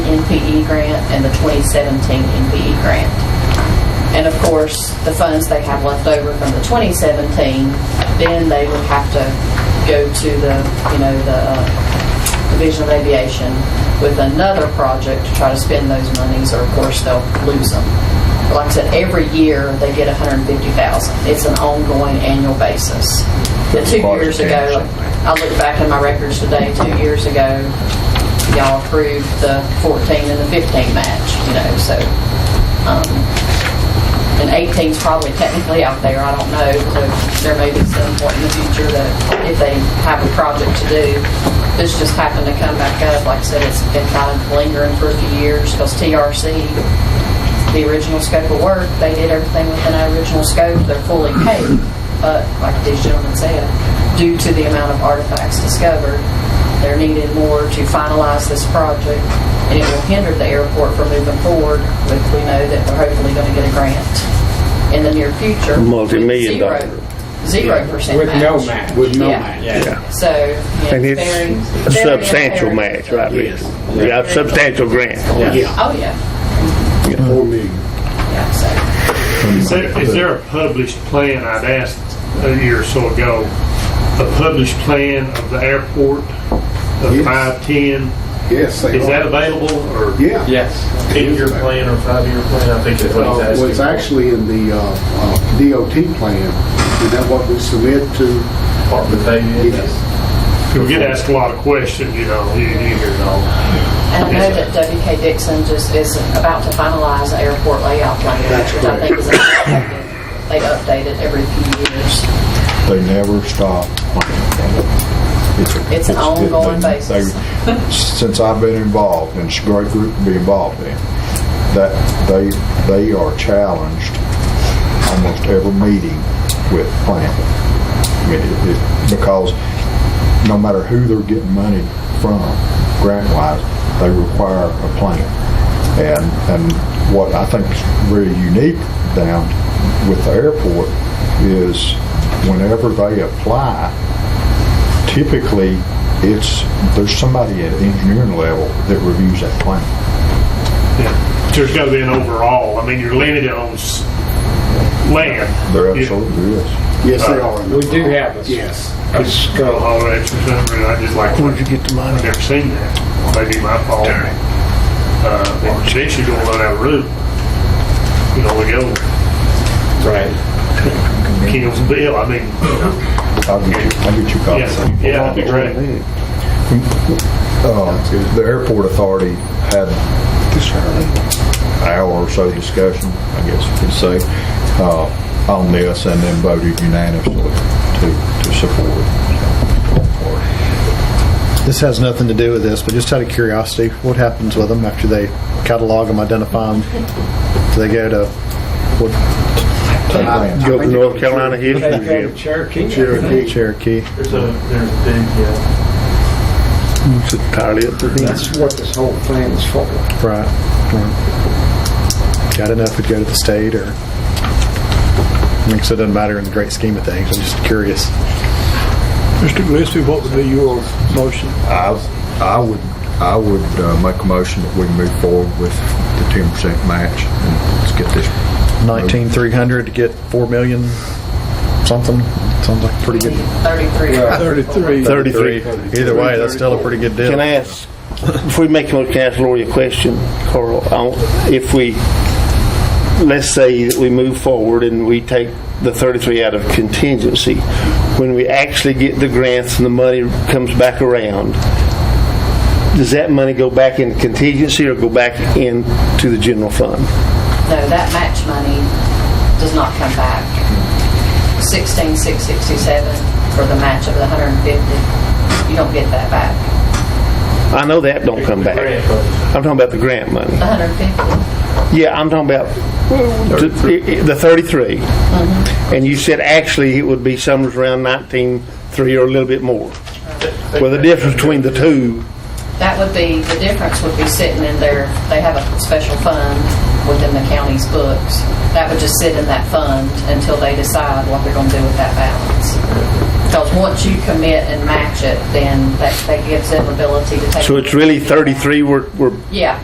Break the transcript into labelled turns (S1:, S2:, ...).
S1: NVE E grant and the 2017 NVE E grant. And of course, the funds they have left over from the 2017, then they would have to go to the, you know, the uh, Division of Aviation with another project to try to spend those monies, or of course, they'll lose them. Like I said, every year, they get 150,000. It's an ongoing annual basis. The two years ago, I looked back in my records today, two years ago, y'all approved the 14 and the 15 match, you know, so, um, and 18's probably technically out there, I don't know, so there may be some point in the future that if they have a project to do, this just happened to come back up, like I said, it's been kind of lingering for a few years, because TRC the original scope of work, they did everything within our original scope, they're fully paid. But like these gentlemen said, due to the amount of artifacts discovered, they're needed more to finalize this project, and it will hinder the airport from moving forward, with we know that we're hopefully going to get a grant in the near future. with
S2: Multi-million
S1: zero-
S2: dollar.
S1: Zero percent
S3: With
S1: match.
S3: no match. With
S1: Yeah.
S3: yeah.
S1: So, yeah,
S2: And
S1: it's
S2: it's
S1: very.
S2: a
S1: very
S2: substantial
S1: imperative.
S2: match right there.
S3: Yes.
S2: Yeah, a substantial grant.
S3: Yeah.
S1: Oh, yeah,
S4: Four million.
S1: yeah, so.
S5: Is there- is there a published plan, I'd asked a year or so ago, a published plan of the airport of
S4: Yes.
S5: five, ten?
S4: Yes, they
S5: Is that
S4: are.
S5: available or?
S4: Yeah.
S6: Yes.
S4: It is
S6: Eight-year
S4: back.
S6: plan or five-year plan, I think is what
S4: Uh,
S6: he's asking.
S4: Well, it's actually in the uh, uh, DOT plan, is that what we submit to?
S6: Department of Aviation.
S5: We get asked a lot of questions, you know, you, you hear it all.
S1: And I know that WK Dixon just is about to finalize the airport layout plan,
S4: That's
S1: which I
S4: correct.
S1: think is, updated. they update it every few years.
S7: They never stop. It's a-
S1: It's an
S7: it-
S1: ongoing
S7: they-
S1: basis.
S7: they- Since I've been involved, and it's a great group to be involved in, that they, they are challenged almost every meeting with planning. I mean, it- it- because no matter who they're getting money from, grant-wise, they require a plan. And, and what I think is really unique down with the airport is whenever they apply, typically, it's, there's somebody at engineering level that reviews that plan.
S5: Yeah. There's gotta be an overall, I mean, you're limited on s- land.
S7: There
S5: You-
S7: absolutely is.
S4: Yes, they are.
S3: Uh, We do have a,
S4: Yes.
S3: a scope.
S5: All that, for some reason, I just like,
S2: Where'd you get the money?
S5: I've never seen that. Maybe my fault. Uh, well, she should go on that route. You know, we go
S3: Right.
S5: King's Bill, I mean, you know,
S7: I'll get you, I'll get you copies.
S5: yeah, yeah, that'd be great.
S7: Uh, The airport authority had an hour or so discussion, I guess you could say, uh, on this and then voted unanimously to, to support it.
S8: This has nothing to do with this, but just out of curiosity, what happens with them after they catalog them, identify them? Do they go to, what,
S2: Go to North Carolina
S3: They
S2: History
S3: go to
S2: Museum.
S3: Cherokee.
S8: Cherokee?
S6: There's a, there's a big, yeah.
S2: It's entirely up to them.
S3: That's what this whole thing is for.
S8: Right. Right. Got enough would go to the state or, I mean, so it doesn't matter in the great scheme of things. I'm just curious.
S9: Mr. Gillespie, what would be your motion?
S7: I, I would, I would uh, make a motion that we move forward with the ten percent match and let's get this.
S8: 19,300 to get 4 million something, sounds like a pretty good.
S1: 33.
S9: Thirty-three.
S2: 33.
S8: Either way, that's still a pretty good deal.
S2: Can I ask, if we make, can I ask Lori a question, Carl? I- If we, let's say that we move forward and we take the 33 out of contingency, when we actually get the grants and the money comes back around, does that money go back into contingency or go back into the general fund?
S1: No, that match money does not come back. 16,667 for the match of the 150, you don't get that back.
S2: I know that don't come back. I'm talking about the grant money.
S1: The 150,
S2: Yeah, I'm talking about the the 33. And you said actually it would be somewhere around 19.3 or a little bit more. Well, the difference between the two,
S1: that would be, the difference would be sitting in their, they have a special fund within the county's books. That would just sit in that fund until they decide what they're going to do with that balance. Because once you commit and match it, then that that gives them ability to take.
S2: so it's really 33 we're, we're
S1: Yeah.